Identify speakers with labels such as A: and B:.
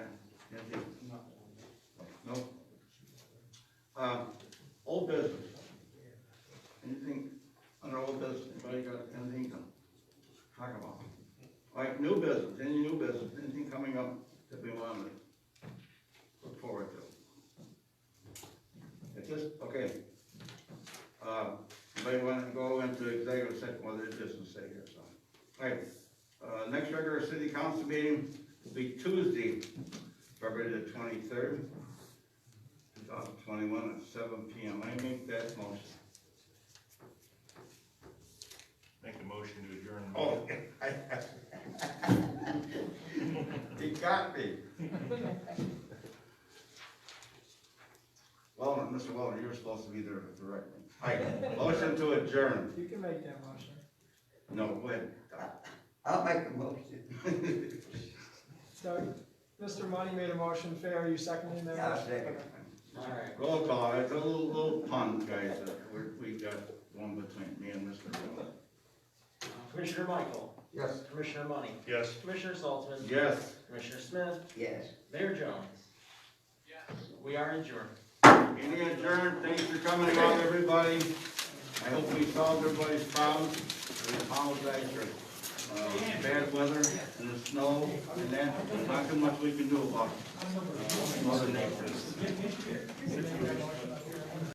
A: Um, Um, Alright, uh, next regular city council meeting will be Tuesday, February the twenty-third, two thousand twenty-one at seven P M. I make that motion.
B: Make a motion to adjourn. the
A: Oh,
B: meeting.
A: he got me. Well, Mr. Wallner, you were supposed to be there directly. Alright, motion to adjourn.
C: You can make that motion.
A: No, wait.
D: I'll make a motion.
C: Doug, Mr. Money made a motion, Fay, are you seconding that?
D: Yeah, I'll second.
C: Okay.
D: Alright.
A: Roll call, it's a little, little pun, guys, that we're, we got one between me and Mr. Wallner.
E: Commissioner Michael,
D: Yes.
E: Commissioner Money,
B: Yes.
E: Commissioner Saltzman,
A: Yes.
E: Commissioner Smith,
D: Yes.
E: Mayor Jones. We are adjourned.
A: Meeting adjourned, thanks for coming along, everybody. I hope we solved everybody's problems. We apologize for, uh, bad weather and the snow and that, there's not too much we can do about it. Mother nature.